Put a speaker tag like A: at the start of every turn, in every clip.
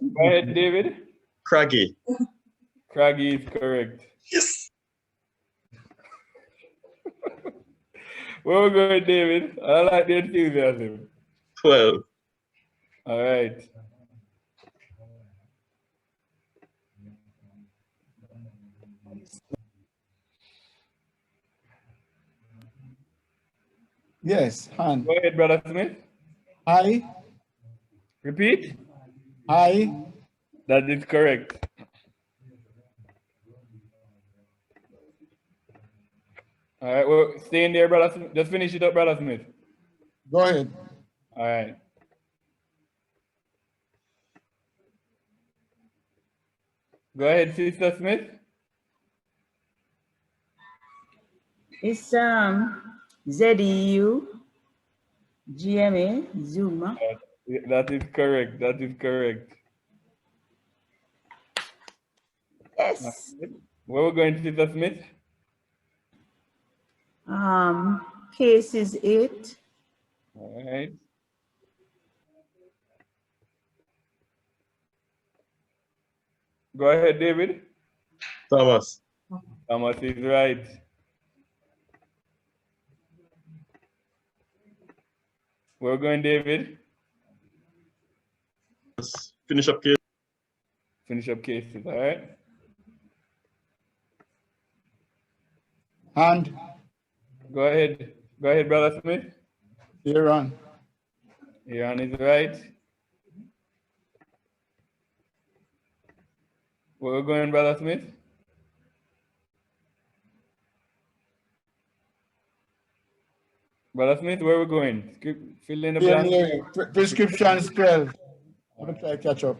A: Go ahead, David.
B: Craggy.
A: Craggy is correct.
B: Yes.
A: Where we going, David? I like the enthusiasm.
B: Twelve.
A: All right.
C: Yes, hand.
A: Go ahead, Brother Smith.
C: I,
A: Repeat.
C: I,
A: That is correct. All right, well, stay in there, Brother Smith. Just finish it up, Brother Smith.
C: go ahead.
A: All right. Go ahead, Sister Smith.
D: It's um ZEU GMA Zuma.
A: Yeah, That is correct. That is correct.
D: Yes.
A: Where we're going, Sister Smith?
D: Um, case is eight.
A: All right. Go ahead, David.
B: Thomas.
A: Thomas is right. We're going, David.
B: Let's finish up here.
A: Finish up cases, all right?
C: Hand,
A: Go ahead. Go ahead, Brother Smith.
C: Iran.
A: Iran is right. We're going, Brother Smith. Brother Smith, where we going? Keep- Fill in the blank.
C: PMA, pre- Prescriptions 12. Let me try catch up.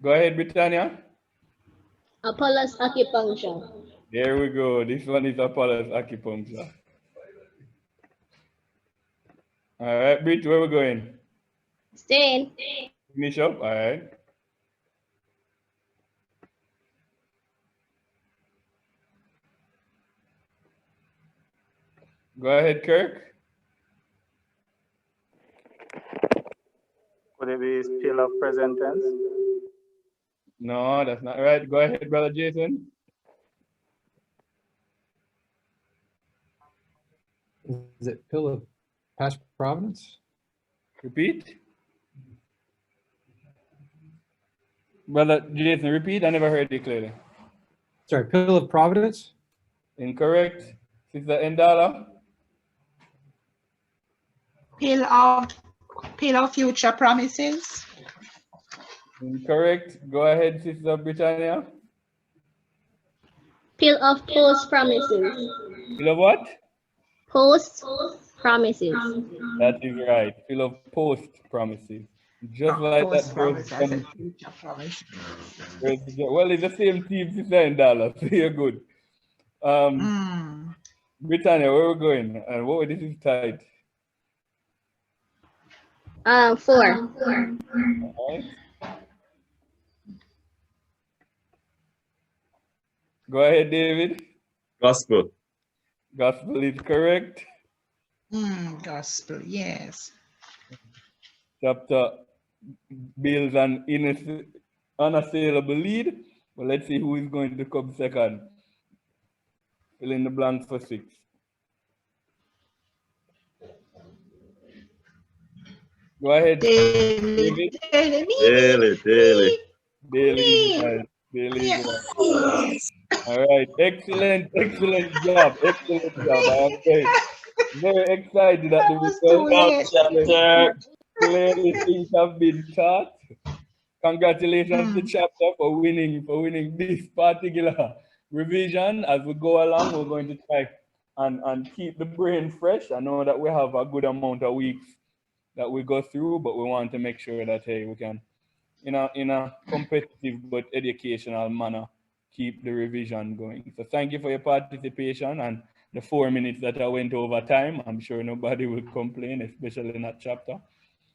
A: Go ahead, Britannia.
E: Apollo's acupuncture.
A: There we go. This one is Apollo's acupuncture. All right, Brit, where we going?
E: Stay
A: Finish up. All right. Go ahead, Kirk.
F: Could it be still of present tense?
A: No, that's not right. Go ahead, brother Jason.
G: Is it pill of past providence?
A: Repeat. Brother Jason, repeat. I never heard it clearly.
G: Sorry, pill of providence?
A: Incorrect. Sister Endala.
H: Peel of, peel of future promises.
A: Incorrect. Go ahead, Sister Britannia.
E: Peel off post promises.
A: Fill of what?
E: Post promises.
A: That is right. Fill of post promises. Just like
H: False
A: that.
H: promise,
A: Post
H: Oh, I
A: promise.
H: said future promise.
A: Well, it's the same team, Sister Endala. So you're good. Um,
H: Hmm.
A: Britannia, where we going? And whoa, this is tight.
E: Uh, four.
A: Alright. Go ahead, David.
B: Gospel.
A: Gospel is correct.
H: Hmm, gospel, yes.
A: chapter builds an inass- unassailable lead. But let's see who is going to come second. Fill in the blanks for six. Go ahead,
H: Daily,
A: David.
H: daily, me,
B: Daily, daily.
A: Daily. Daily. All right. Excellent, excellent job. Excellent job. I am very, very excited at
H: That
A: the
H: was
A: result.
H: too late.
A: Chapter. Clearly things have been taught. Congratulations to
H: Mm.
A: chapter for winning for winning this particular revision. As we go along, we're going to try and, and keep the brain fresh. I know that we have a good amount of weeks that we go through, but we want to make sure that hey we can in a in a competitive but educational manner keep the revision going. So thank you for your participation and the four minutes that I went over time. I'm sure nobody will complain, especially in that chapter.